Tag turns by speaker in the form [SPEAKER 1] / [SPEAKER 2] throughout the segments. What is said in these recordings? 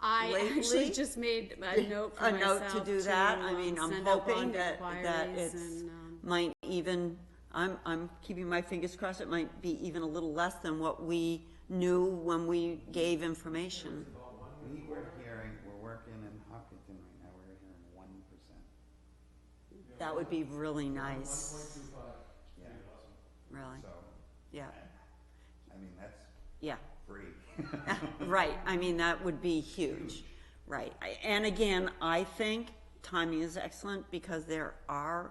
[SPEAKER 1] I
[SPEAKER 2] lately.
[SPEAKER 1] actually just made a note for
[SPEAKER 2] a note
[SPEAKER 1] myself
[SPEAKER 2] to do that. I
[SPEAKER 1] um,
[SPEAKER 2] mean, I'm
[SPEAKER 1] send out
[SPEAKER 2] hoping
[SPEAKER 1] bond
[SPEAKER 2] that, that
[SPEAKER 1] inquiries
[SPEAKER 2] it's,
[SPEAKER 1] and, um,
[SPEAKER 2] might even, I'm, I'm keeping my fingers crossed, it might be even a little less than what we knew when we gave information.
[SPEAKER 3] We were hearing, we're working in Hopkinton right now, we're hearing one percent.
[SPEAKER 2] That would be really nice,
[SPEAKER 3] Yeah,
[SPEAKER 2] really,
[SPEAKER 3] so,
[SPEAKER 2] yeah,
[SPEAKER 3] I mean, that's
[SPEAKER 2] yeah.
[SPEAKER 3] free.
[SPEAKER 2] Right, I mean, that would be huge, right. I- And again, I think timing is excellent because there are,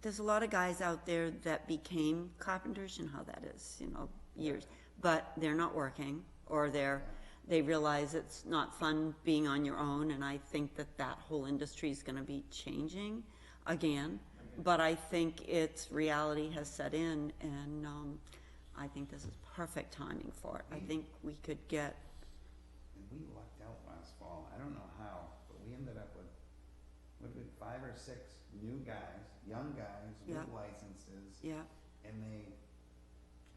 [SPEAKER 2] there's a lot of guys out there that became carpenters, you know how that is, you know, years, but they're not working, or they're, they realize it's not fun being on your own, and I think that that whole industry is gonna be changing again. But I think its reality has set in, and, um, I think this is perfect timing for it. I
[SPEAKER 3] Mm-hmm.
[SPEAKER 2] think we could get,
[SPEAKER 3] And we lucked out last fall, I don't know how, but we ended up with, what did, we- five or six new guys, young guys with
[SPEAKER 2] Yeah.
[SPEAKER 3] licenses.
[SPEAKER 2] yeah,
[SPEAKER 3] And they,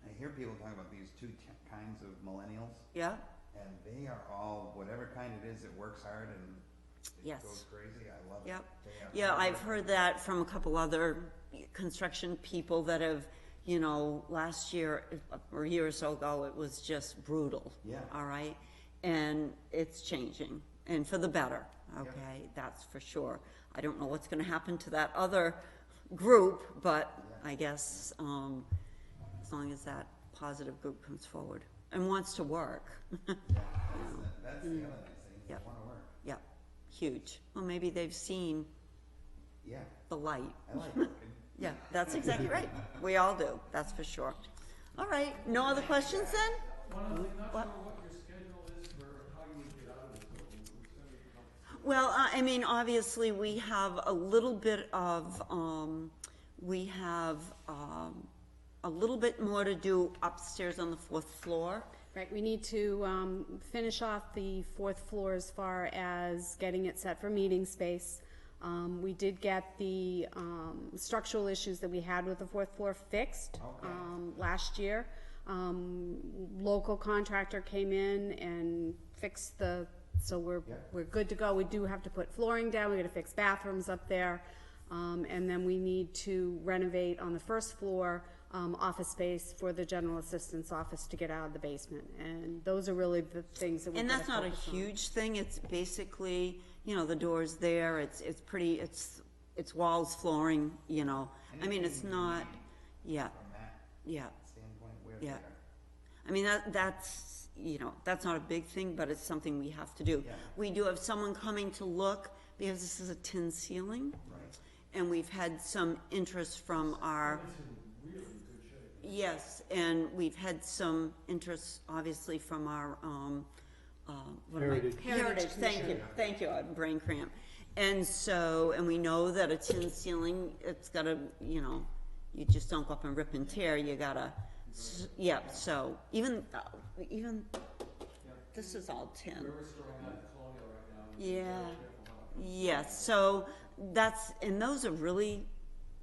[SPEAKER 3] I hear people talk about these two ki- kinds of millennials,
[SPEAKER 2] yeah,
[SPEAKER 3] and they are all, whatever kind it is, it works hard and it
[SPEAKER 2] Yes.
[SPEAKER 3] goes crazy, I love it.
[SPEAKER 2] Yep.
[SPEAKER 3] They are
[SPEAKER 2] yeah,
[SPEAKER 3] hard
[SPEAKER 2] I've heard that from a couple other construction people that have, you know, last year, or a year or so ago, it was just brutal.
[SPEAKER 3] Yeah.
[SPEAKER 2] All right, and it's changing, and for the better,
[SPEAKER 3] Yep.
[SPEAKER 2] okay, that's for sure. I don't know what's gonna happen to that other group, but
[SPEAKER 3] Yeah.
[SPEAKER 2] I guess, um, as long as that positive group comes forward and wants to work,
[SPEAKER 3] Yeah, That's, the- that's the other nice thing, they
[SPEAKER 2] Yep.
[SPEAKER 3] wanna work,
[SPEAKER 2] yeah, huge. Well, maybe they've seen
[SPEAKER 3] yeah,
[SPEAKER 2] the light.
[SPEAKER 3] I like working.
[SPEAKER 2] Yeah, that's exactly right. We all do, that's for sure. All right, no other questions then?
[SPEAKER 4] One of the, not
[SPEAKER 2] What?
[SPEAKER 4] sure what your schedule is for how you would get out of this building, which is gonna be complicated.
[SPEAKER 2] Well, uh, I I mean, obviously, we have a little bit of, um, we have, um, a little bit more to do upstairs on the fourth floor.
[SPEAKER 1] Right, we need to um, finish off the fourth floor as far as getting it set for meeting space. Um, We did get the um, structural issues that we had with the fourth floor fixed
[SPEAKER 3] Okay.
[SPEAKER 1] um, last year. Um, Local contractor came in and fixed the, so we're,
[SPEAKER 3] Yeah.
[SPEAKER 1] we're good to go. We do have to put flooring down, we gotta fix bathrooms up there. Um, and then we need to renovate on the first floor, um, office space for the general assistance office to get out of the basement. And those are really the things that we
[SPEAKER 2] And
[SPEAKER 1] gotta
[SPEAKER 2] that's not a
[SPEAKER 1] focus on.
[SPEAKER 2] huge thing, it's basically, you know, the door's there, it's, it's pretty, it's, it's walls, flooring, you know. I mean, it's not, yeah,
[SPEAKER 3] From that
[SPEAKER 2] yeah.
[SPEAKER 3] standpoint, where they
[SPEAKER 2] Yeah.
[SPEAKER 3] are.
[SPEAKER 2] I mean, that, that's, you know, that's not a big thing, but it's something we have to do.
[SPEAKER 3] Yeah.
[SPEAKER 2] We do have someone coming to look, because this is a tin ceiling.
[SPEAKER 3] Right.
[SPEAKER 2] And we've had some interest from our,
[SPEAKER 4] It's in really good shape.
[SPEAKER 2] yes, and we've had some interest, obviously, from our, um, uh, what am I?
[SPEAKER 4] Heritage.
[SPEAKER 2] Heritage, thank you, thank you, I had brain cramp. And so, and we know that a tin ceiling, it's gotta, you know, you just don't go up and rip and tear, you gotta, s- yeah, so, even, uh, even, this is all tin.
[SPEAKER 4] We're restoring that colonial right now. and
[SPEAKER 2] Yeah.
[SPEAKER 4] we're careful how it-
[SPEAKER 2] Yes, so that's, and those are really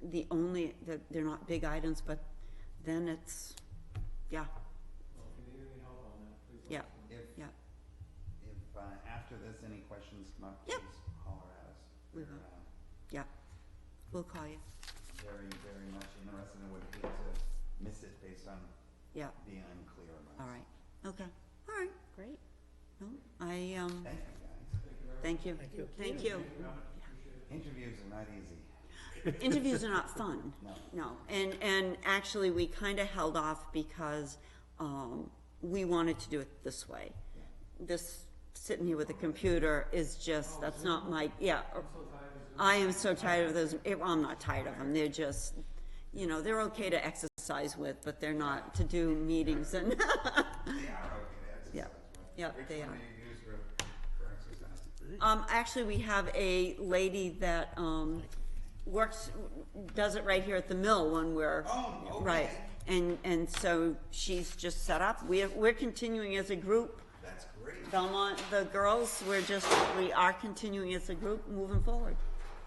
[SPEAKER 2] the only, that they're not big items, but then it's, yeah,
[SPEAKER 4] Well, if you need any help on that, please. let
[SPEAKER 2] yeah,
[SPEAKER 4] us know.
[SPEAKER 3] If,
[SPEAKER 2] yeah,
[SPEAKER 3] if, uh, after this, any questions come up,
[SPEAKER 2] Yep.
[SPEAKER 3] please holler at us.
[SPEAKER 2] We
[SPEAKER 3] We're,
[SPEAKER 2] will.
[SPEAKER 3] uh,
[SPEAKER 2] yeah. We'll call you,
[SPEAKER 3] very, very much interested and would hate to miss it based on
[SPEAKER 2] yeah,
[SPEAKER 3] being unclear about.
[SPEAKER 2] all right, okay, all right.
[SPEAKER 1] Great.
[SPEAKER 2] No, I, um,
[SPEAKER 3] Thank you, guys.
[SPEAKER 2] thank you. Thank you. Thank you.
[SPEAKER 3] Mm-hmm. Interviews are not easy.
[SPEAKER 2] Interviews are not fun.
[SPEAKER 3] No.
[SPEAKER 2] No, and, and actually, we kind of held off because, um, we wanted to do it this way. This, sitting here with a computer is just, that's not my, yeah. I am so tired of those, eh, well, I'm not tired of them, they're just, you know, they're okay to exercise with, but they're not to do meetings and,
[SPEAKER 3] They are okay to exercise,
[SPEAKER 2] Yeah.
[SPEAKER 3] right?
[SPEAKER 2] Yeah, they
[SPEAKER 3] Which one
[SPEAKER 2] are.
[SPEAKER 3] do you use for, for exercise?
[SPEAKER 2] Um, actually, we have a lady that, um, works, does it right here at the mill when we're.
[SPEAKER 3] Oh, okay.
[SPEAKER 2] Right, and, and so she's just set up, we're, we're continuing as a group,
[SPEAKER 3] That's great.
[SPEAKER 2] Belmont, the girls, we're just, we are continuing as a group, moving forward.